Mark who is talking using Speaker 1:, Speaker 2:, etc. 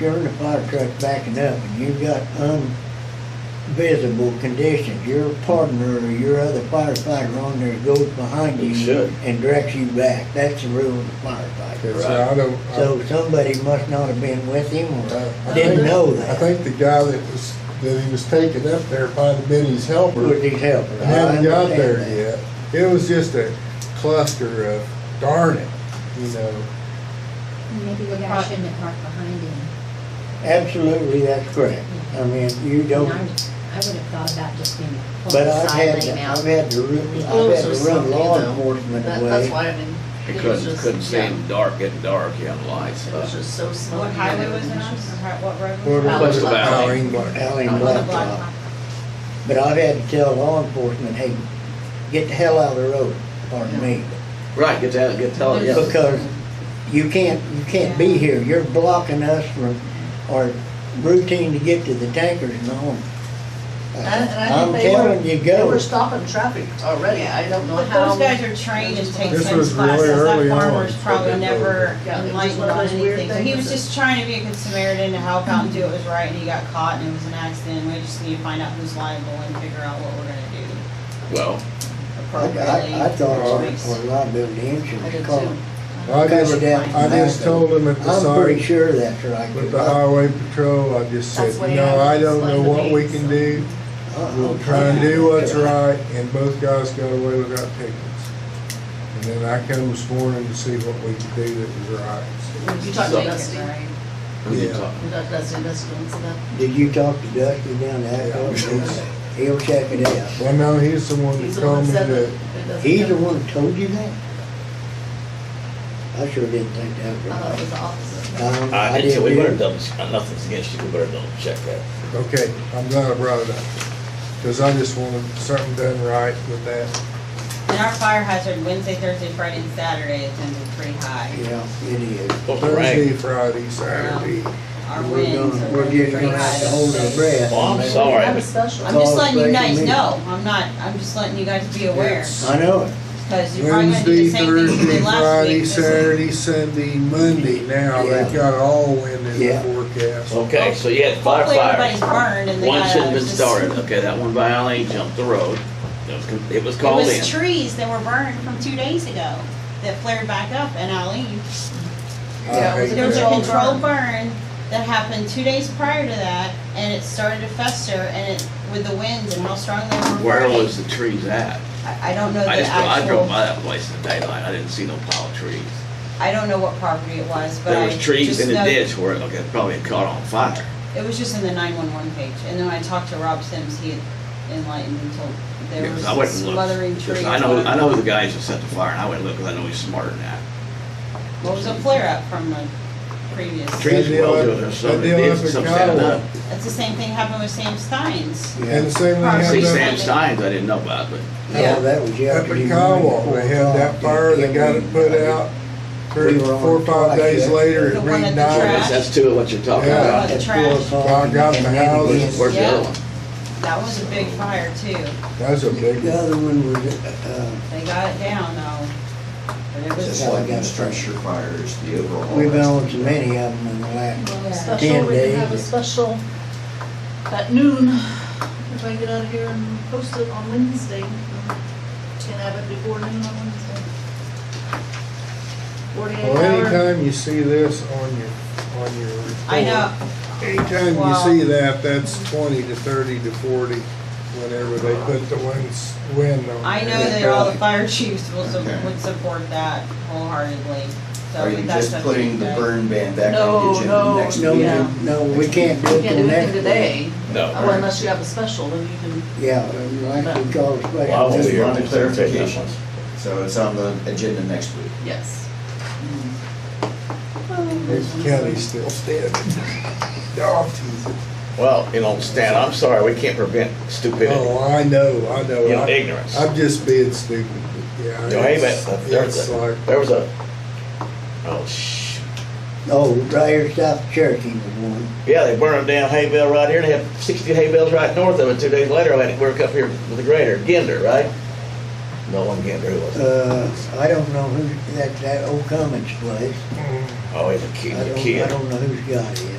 Speaker 1: You're in the fire truck backing up and you've got invisible conditions, your partner or your other firefighter on there goes behind
Speaker 2: He
Speaker 1: you.
Speaker 2: should.
Speaker 1: And directs you back, that's the rule of the firefighter.
Speaker 3: Okay, so I don't. I-
Speaker 1: So somebody must not have been with him
Speaker 3: I- I
Speaker 1: or uh, didn't
Speaker 3: think-
Speaker 1: know
Speaker 3: I
Speaker 1: that,
Speaker 3: think the guy that was, that he was taking up there might have been his helper.
Speaker 1: was his helper.
Speaker 3: I
Speaker 1: I
Speaker 3: haven't got
Speaker 1: understand
Speaker 3: there
Speaker 1: that.
Speaker 3: yet. It was just a cluster of darn it, you know.
Speaker 4: Maybe the guy shouldn't have parked behind him.
Speaker 1: Absolutely, that's correct. I mean, you
Speaker 4: And
Speaker 1: don't,
Speaker 4: I I would have thought about just being,
Speaker 1: but
Speaker 4: pulling the
Speaker 1: I've
Speaker 4: side
Speaker 1: had,
Speaker 4: lane
Speaker 1: to-
Speaker 4: out.
Speaker 1: I've had to, run- I've had to run law enforcement
Speaker 5: That- That's
Speaker 1: away.
Speaker 5: why I mean.
Speaker 2: You
Speaker 5: it was
Speaker 2: couldn't,
Speaker 5: just-
Speaker 2: couldn't see
Speaker 5: yeah,
Speaker 2: them dark, getting dark, you had lights.
Speaker 5: It
Speaker 2: uh,
Speaker 5: was just so slow.
Speaker 6: What highway was it on, or how- what road
Speaker 1: Where
Speaker 6: was it
Speaker 1: was
Speaker 6: on?
Speaker 2: Close to Valley.
Speaker 3: Howling black.
Speaker 1: Alley
Speaker 6: On
Speaker 1: and
Speaker 6: the
Speaker 1: blacktop.
Speaker 6: block.
Speaker 1: But I've had to tell law enforcement, hey, get the hell out of the road, pardon me.
Speaker 2: Right, get that, get tell, yeah.
Speaker 1: Because you can't, you can't be here, you're blocking us from, our routine to get to the tankers and home.
Speaker 5: And, and I
Speaker 1: I'm
Speaker 5: think they were,
Speaker 1: telling you,
Speaker 5: they
Speaker 1: go.
Speaker 5: were stopping traffic already, I don't know
Speaker 6: But
Speaker 5: how.
Speaker 6: those guys are trained and take
Speaker 3: This
Speaker 6: those
Speaker 3: was really
Speaker 6: classes, that
Speaker 3: early on,
Speaker 6: farmer's
Speaker 3: what
Speaker 6: probably
Speaker 3: they
Speaker 6: never
Speaker 5: did. Yeah, it was
Speaker 6: enlightened
Speaker 5: one of
Speaker 6: on
Speaker 5: those weird
Speaker 6: anything. So He
Speaker 5: things
Speaker 6: was
Speaker 5: that-
Speaker 6: just trying to be a good Samaritan to help out and do what was right, and he got caught, and it was an accident, we just need to find out who's liable and figure out what we're gonna do
Speaker 2: Well,
Speaker 1: I,
Speaker 6: appropriately.
Speaker 1: I, I thought our,
Speaker 6: which makes-
Speaker 1: our liability
Speaker 5: I
Speaker 1: insurance
Speaker 5: did
Speaker 1: called.
Speaker 5: too.
Speaker 3: I
Speaker 1: Cut it
Speaker 3: just,
Speaker 1: down from
Speaker 3: I just
Speaker 1: back
Speaker 3: told him at the
Speaker 1: I'm pretty
Speaker 3: sign,
Speaker 1: sure that's right.
Speaker 3: with the highway patrol, I just said,
Speaker 5: That's the way
Speaker 3: no,
Speaker 5: I
Speaker 3: I don't know
Speaker 5: explained
Speaker 3: what
Speaker 5: the
Speaker 3: we can do.
Speaker 1: Uh-uh.
Speaker 3: We'll try and do what's right, and both guys got away without tickets. And then I come this morning to see what we could do that was right.
Speaker 5: You talked
Speaker 2: So-
Speaker 5: to Dusty, you
Speaker 2: who you
Speaker 3: Yeah.
Speaker 2: talking?
Speaker 5: talked to Dusty, Dusty wants that.
Speaker 1: Did you talk to Dusty down there?
Speaker 3: Yeah.
Speaker 1: He'll check it out.
Speaker 3: Well, no, he's the one
Speaker 5: He's
Speaker 3: that
Speaker 5: the one
Speaker 3: told me
Speaker 5: said
Speaker 3: that,
Speaker 5: that. Dusty
Speaker 1: He's the
Speaker 5: did.
Speaker 1: one that told you that? I sure didn't think that was
Speaker 5: I thought it
Speaker 1: right.
Speaker 5: was the opposite.
Speaker 1: Um,
Speaker 7: I did, so we
Speaker 1: too.
Speaker 7: better double, uh, nothing's against you, we better double check that.
Speaker 3: okay, I'm glad I brought it up. Because I just wanted something done right with that.
Speaker 6: And our fire hazard Wednesday, Thursday, Friday, and Saturday is gonna be pretty high.
Speaker 1: Yeah, it is.
Speaker 7: Supposed to rain.
Speaker 3: Thursday, Friday, Saturday.
Speaker 6: Our
Speaker 1: We're
Speaker 6: winds
Speaker 1: gonna,
Speaker 6: are
Speaker 1: we're
Speaker 6: gonna be
Speaker 1: just
Speaker 6: pretty
Speaker 1: gonna have to
Speaker 6: high.
Speaker 1: hold our breath.
Speaker 7: Well, I'm
Speaker 1: I mean,
Speaker 7: sorry.
Speaker 5: That was special.
Speaker 6: I'm just
Speaker 1: Call
Speaker 6: letting you
Speaker 1: us back
Speaker 6: guys
Speaker 1: to me.
Speaker 6: know, I'm not, I'm just letting you guys be aware.
Speaker 3: Yes.
Speaker 1: I know it.
Speaker 6: Because you're probably gonna do
Speaker 3: Wednesday,
Speaker 6: the same thing you
Speaker 3: Thursday,
Speaker 6: did last week.
Speaker 3: Friday,
Speaker 6: this week.
Speaker 3: Saturday, Sunday, Monday now,
Speaker 1: Yeah.
Speaker 3: they've got all wind in the
Speaker 1: Yeah. Oh,
Speaker 3: forecast.
Speaker 7: Okay, so you had five
Speaker 6: Hopefully everybody's
Speaker 7: fires.
Speaker 6: burned and they got.
Speaker 7: One shouldn't have been
Speaker 6: just-
Speaker 7: started, okay, that one by Alley jumped the road, it was, con- it was
Speaker 6: It
Speaker 7: called in.
Speaker 6: was trees that were burned from two days ago that flared back up in Aleen.
Speaker 3: I hate
Speaker 6: There was a
Speaker 3: that.
Speaker 6: controlled burn that happened two days prior to that and it started to fester and it, with the winds and how strong they were
Speaker 7: Where
Speaker 6: burning.
Speaker 7: was the trees at?
Speaker 6: I, I don't know the
Speaker 7: I just, I drove
Speaker 6: actual,
Speaker 7: by that place in the daylight, I didn't see no pile of trees.
Speaker 6: I don't know what property it was, but
Speaker 7: There
Speaker 6: I
Speaker 7: was
Speaker 6: just
Speaker 7: trees in the
Speaker 6: know-
Speaker 7: ditch where, it- okay, probably it caught on fire.
Speaker 6: It was just in the nine-one-one page. And then when I talked to Rob Sims, he had enlightened and told, there
Speaker 7: Yeah, 'cause I
Speaker 6: was
Speaker 7: wouldn't look.
Speaker 6: smothering
Speaker 7: 'Cause
Speaker 6: trees.
Speaker 7: I know,
Speaker 6: on-
Speaker 7: I know the guys that set the fire, and I wouldn't look, 'cause I know he's smarter than that.
Speaker 6: Well, it was a flare-up from the previous.
Speaker 7: Trees
Speaker 3: deal
Speaker 7: will
Speaker 3: up-
Speaker 7: do it, there's some
Speaker 3: that deal
Speaker 7: that
Speaker 3: up in
Speaker 7: did, some standing
Speaker 3: Caldwell.
Speaker 7: up.
Speaker 6: That's the same thing happened with Sam Steins.
Speaker 3: And the same thing
Speaker 6: Yeah.
Speaker 7: See,
Speaker 3: happened up-
Speaker 7: Sam Steins, I didn't know about, but
Speaker 1: Oh, that was
Speaker 3: up
Speaker 1: yesterday.
Speaker 3: at
Speaker 1: morning,
Speaker 3: Caldwell,
Speaker 1: four
Speaker 3: they had that
Speaker 1: o'clock.
Speaker 3: fire, they got it put out, three, four, or five days later, it
Speaker 6: The one at the
Speaker 3: reignited.
Speaker 6: track.
Speaker 7: that's, that's two of what you're talking
Speaker 3: Yeah.
Speaker 7: about.
Speaker 6: But the
Speaker 1: At four
Speaker 6: trash-
Speaker 1: o'clock,
Speaker 3: Well, I got
Speaker 1: and
Speaker 3: the
Speaker 1: then
Speaker 3: houses.
Speaker 1: again.
Speaker 7: Where's the
Speaker 6: Yeah.
Speaker 7: other one?
Speaker 6: That was a big fire too.
Speaker 3: That's a big
Speaker 1: The
Speaker 3: one.
Speaker 1: other one was, uh,
Speaker 6: They got it down though. But it was,
Speaker 1: Yeah.
Speaker 8: Just like in structure fires, the overall.
Speaker 1: uh, we've owned so many of them in the last,
Speaker 5: Special, we can have a
Speaker 1: days.
Speaker 5: special at noon, if I get out of here and post it on Wednesday. Can have it before noon on Wednesday. Forty-eight
Speaker 3: Well,
Speaker 5: hour.
Speaker 3: anytime you see this on your, on your
Speaker 6: I know,
Speaker 3: report, Anytime you
Speaker 6: Well-
Speaker 3: see that, that's twenty to thirty to forty, whenever they put the winds, wind on.
Speaker 6: I know
Speaker 3: there.
Speaker 6: that all the fire chiefs will, su-
Speaker 8: Okay.
Speaker 6: would support that wholeheartedly. So
Speaker 8: Are you
Speaker 6: that's
Speaker 8: just
Speaker 6: up to
Speaker 8: putting the
Speaker 6: guys.
Speaker 8: burn ban back
Speaker 5: No,
Speaker 8: on the agenda
Speaker 5: no,
Speaker 8: next
Speaker 1: no,
Speaker 8: week?
Speaker 5: Yeah.
Speaker 1: no, we can't do
Speaker 5: You
Speaker 1: it
Speaker 5: can't
Speaker 1: till
Speaker 5: do anything
Speaker 1: next week.
Speaker 5: today,
Speaker 7: No.
Speaker 5: well, unless you have a special, then you can,
Speaker 1: Yeah, like we call a special.
Speaker 7: Well, I won't be
Speaker 8: Just
Speaker 7: here.
Speaker 8: wanted
Speaker 7: Just there taking that
Speaker 8: clarification.
Speaker 7: one.
Speaker 8: So it's on the agenda next week.
Speaker 5: yes.
Speaker 3: There's Kelly still standing. Dog teeth.
Speaker 7: Well, you know, Stan, I'm sorry, we can't prevent stupidity,
Speaker 3: Oh, I know, I know.
Speaker 7: you know,
Speaker 3: I-
Speaker 7: ignorance.
Speaker 3: I'm just being stupid, but yeah.
Speaker 7: You know, hey,
Speaker 3: it's-
Speaker 7: but there's
Speaker 3: It's like,
Speaker 7: a, there was a, oh, shh.
Speaker 1: Oh, right here south of Cherokee was one.
Speaker 7: Yeah, they burned down hay bale right here, and they had sixty hay bales right north of it, two days later, I had to work up here with the grader, Ginder, right? No one Ginder, who was it?
Speaker 1: Uh, I don't know who, that, that old Cummins place.
Speaker 3: mm,
Speaker 7: Oh, he's a
Speaker 1: I
Speaker 7: kid, a
Speaker 1: don't, I
Speaker 7: kid.
Speaker 1: don't know who's got it.